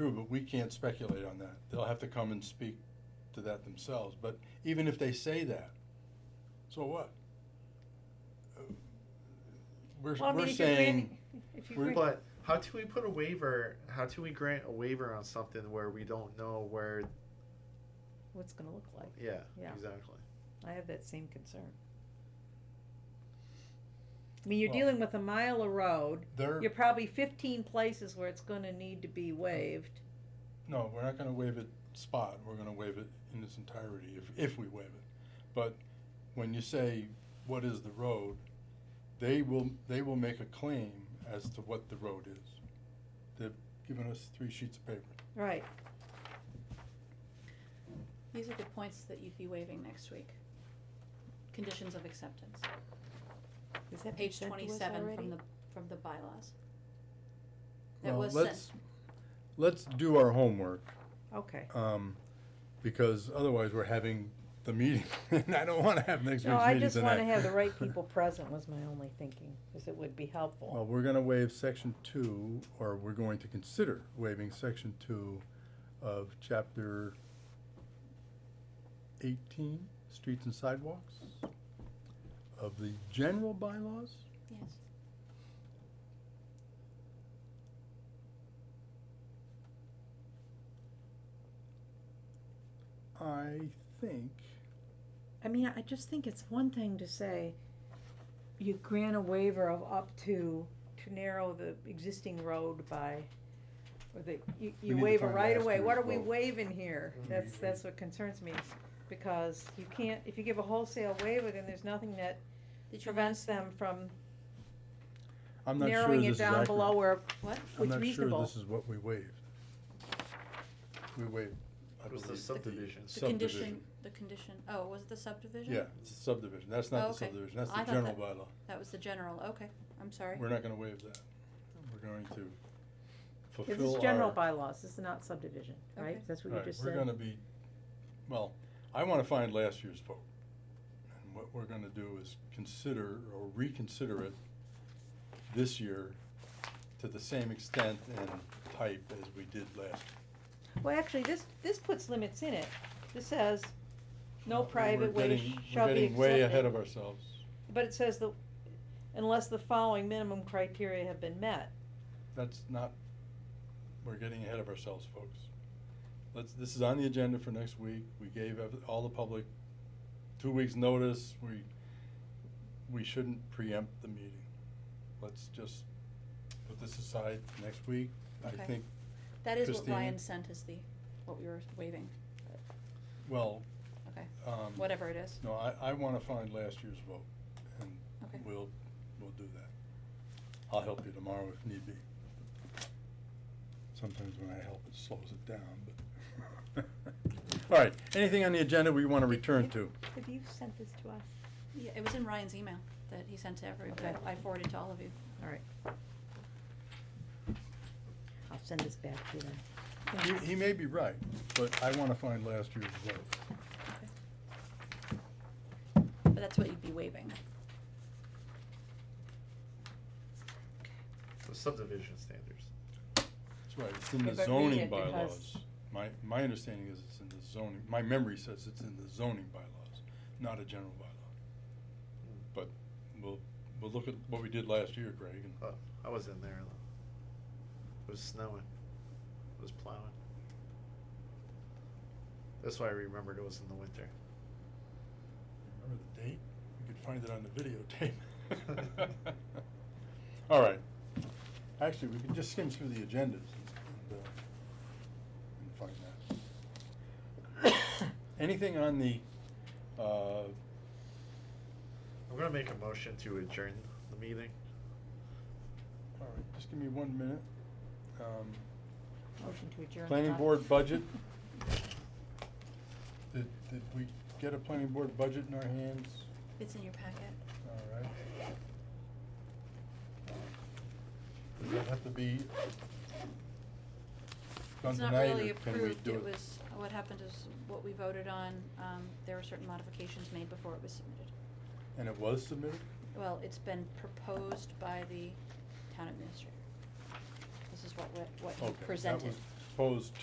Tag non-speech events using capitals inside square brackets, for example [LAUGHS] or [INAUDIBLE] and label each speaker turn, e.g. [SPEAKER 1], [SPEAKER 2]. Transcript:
[SPEAKER 1] True, but we can't speculate on that. They'll have to come and speak to that themselves, but even if they say that, so what? Uh, We're,
[SPEAKER 2] Well, I mean,
[SPEAKER 1] we're
[SPEAKER 2] if you grant-
[SPEAKER 1] saying,
[SPEAKER 2] if you
[SPEAKER 1] we're-
[SPEAKER 2] grant-
[SPEAKER 3] But how do we put a waiver? How do we grant a waiver on something where we don't know where?
[SPEAKER 2] What's it gonna look like?
[SPEAKER 3] Yeah,
[SPEAKER 2] Yeah.
[SPEAKER 3] exactly.
[SPEAKER 2] I have that same concern. I mean, you're
[SPEAKER 1] Well-
[SPEAKER 2] dealing with a mile of road,
[SPEAKER 1] they're,
[SPEAKER 2] you're probably fifteen places where it's gonna need to be waived.
[SPEAKER 1] no, we're not gonna waive it spot, we're gonna waive it in its entirety, if, if we waive it. But when you say, what is the road, they will, they will make a claim as to what the road is. They've given us three sheets of paper.
[SPEAKER 2] Right,
[SPEAKER 4] These are the points that you'd be waiving next week. Conditions of acceptance,
[SPEAKER 2] is that presented
[SPEAKER 4] page
[SPEAKER 2] to us
[SPEAKER 4] twenty-seven
[SPEAKER 2] already?
[SPEAKER 4] from the, from the bylaws. That
[SPEAKER 1] Well,
[SPEAKER 4] was sent.
[SPEAKER 1] let's, let's do our homework,
[SPEAKER 2] Okay,
[SPEAKER 1] um, because otherwise we're having the meeting, [LAUGHS] and I don't wanna have next week's meeting
[SPEAKER 2] no,
[SPEAKER 1] tonight.
[SPEAKER 2] I just wanna have
[SPEAKER 1] [LAUGHS]
[SPEAKER 2] the right people present was my only thinking, cause it would be helpful.
[SPEAKER 1] Well, we're gonna waive section two, or we're going to consider waiving section two of chapter eighteen, streets and sidewalks, of the general bylaws,
[SPEAKER 4] Yes,
[SPEAKER 1] I think,
[SPEAKER 2] I mean, I just think it's one thing to say you grant a waiver of up to, to narrow the existing road by, or the, you,
[SPEAKER 1] need
[SPEAKER 2] you
[SPEAKER 1] to
[SPEAKER 2] waive a
[SPEAKER 1] find
[SPEAKER 2] right
[SPEAKER 1] last
[SPEAKER 2] away, what are
[SPEAKER 1] year's
[SPEAKER 2] we
[SPEAKER 1] vote.
[SPEAKER 2] waiving here?
[SPEAKER 1] Mm-hmm.
[SPEAKER 3] Mm.
[SPEAKER 2] That's, that's what concerns me, because you can't, if you give a wholesale waiver, then there's nothing that
[SPEAKER 4] did you,
[SPEAKER 2] prevents them from
[SPEAKER 1] I'm not sure
[SPEAKER 2] narrowing
[SPEAKER 1] this
[SPEAKER 2] it
[SPEAKER 1] is
[SPEAKER 2] down
[SPEAKER 1] accurate.
[SPEAKER 2] below where,
[SPEAKER 4] what?
[SPEAKER 1] I'm
[SPEAKER 2] what's
[SPEAKER 1] not sure
[SPEAKER 2] reasonable.
[SPEAKER 1] this is what we waived. We waived, I
[SPEAKER 3] It was
[SPEAKER 1] believe.
[SPEAKER 3] the subdivision.
[SPEAKER 4] The condition,
[SPEAKER 1] subdivision.
[SPEAKER 4] the condition, oh, was it the subdivision?
[SPEAKER 1] Yeah, it's a subdivision, that's
[SPEAKER 4] Oh,
[SPEAKER 1] not the
[SPEAKER 4] okay.
[SPEAKER 1] subdivision, that's
[SPEAKER 4] I
[SPEAKER 1] the
[SPEAKER 4] thought
[SPEAKER 1] general
[SPEAKER 4] that-
[SPEAKER 1] bylaw.
[SPEAKER 4] That was the general, okay, I'm sorry.
[SPEAKER 1] We're not gonna waive that. We're going to fulfill
[SPEAKER 2] This
[SPEAKER 1] our.
[SPEAKER 2] is general bylaws, this is not subdivision, right?
[SPEAKER 4] Okay.
[SPEAKER 2] That's what you
[SPEAKER 1] Right,
[SPEAKER 2] just
[SPEAKER 1] we're
[SPEAKER 2] said.
[SPEAKER 1] gonna be, well, I wanna find last year's vote. And what we're gonna do is consider or reconsider it this year to the same extent and type as we did last.
[SPEAKER 2] Well, actually, this, this puts limits in it. This says, no
[SPEAKER 1] We're
[SPEAKER 2] private way
[SPEAKER 1] getting-
[SPEAKER 2] shall be
[SPEAKER 1] We're getting way ahead
[SPEAKER 2] accepted.
[SPEAKER 1] of ourselves.
[SPEAKER 2] But it says the, unless the following minimum criteria have been met.
[SPEAKER 1] That's not, we're getting ahead of ourselves, folks. Let's, this is on the agenda for next week. We gave ev- all the public two weeks' notice. We, we shouldn't preempt the meeting. Let's just put this aside next week. I
[SPEAKER 4] Okay.
[SPEAKER 1] think,
[SPEAKER 4] That is what
[SPEAKER 1] Christine?
[SPEAKER 4] Ryan sent as the, what we were waiving,
[SPEAKER 1] well,
[SPEAKER 4] okay,
[SPEAKER 1] um,
[SPEAKER 4] whatever it is,
[SPEAKER 1] no, I, I wanna find last year's vote and
[SPEAKER 4] okay.
[SPEAKER 1] we'll, we'll do that. I'll help you tomorrow if need be. Sometimes when I help, it slows it down, but. [LAUGHS] All right, anything on the agenda we wanna return to?
[SPEAKER 2] Have you sent this to us?
[SPEAKER 4] Yeah, it was in Ryan's email that he sent to everybody,
[SPEAKER 2] Okay.
[SPEAKER 4] I forwarded to all of you.
[SPEAKER 2] All right. I'll send this back to them.
[SPEAKER 1] He, he may be right, but I wanna find last year's vote.
[SPEAKER 4] But that's what you'd be waiving.
[SPEAKER 3] The subdivision standards.
[SPEAKER 1] That's right, it's in
[SPEAKER 2] Yeah,
[SPEAKER 1] the
[SPEAKER 2] but read
[SPEAKER 1] zoning
[SPEAKER 2] it because-
[SPEAKER 1] bylaws. My, my understanding is it's in the zoning, my memory says it's in the zoning bylaws, not a general bylaw.
[SPEAKER 3] Hmm.
[SPEAKER 1] But we'll, we'll look at what we did last year, Greg, and
[SPEAKER 3] Oh, I was in there. though. It was snowing. It was plowing. That's why I remembered it was in the winter.
[SPEAKER 1] Remember the date? We could find it on the videotape. [LAUGHS] All right. Actually, we can just skim through the agendas and, and, uh, and find that. [COUGHS] Anything on the, uh,
[SPEAKER 3] I'm gonna make a motion to adjourn the meeting.
[SPEAKER 1] all right, just give me one minute. Um,
[SPEAKER 2] Motion to adjourn.
[SPEAKER 1] Planning
[SPEAKER 2] Bob.
[SPEAKER 1] board budget. Did, did we get a planning board budget in our hands?
[SPEAKER 4] It's in your packet.
[SPEAKER 1] All right. Does that have to be done
[SPEAKER 4] It's not
[SPEAKER 1] tonight,
[SPEAKER 4] really
[SPEAKER 1] or can we
[SPEAKER 4] approved,
[SPEAKER 1] do
[SPEAKER 4] it
[SPEAKER 1] it?
[SPEAKER 4] was, what happened is, what we voted on, um, there were certain modifications made before it was submitted.
[SPEAKER 1] And it was submitted?
[SPEAKER 4] Well, it's been proposed by the town administrator. This is what, what, what
[SPEAKER 1] Okay,
[SPEAKER 4] he
[SPEAKER 1] that
[SPEAKER 4] presented.
[SPEAKER 1] was- opposed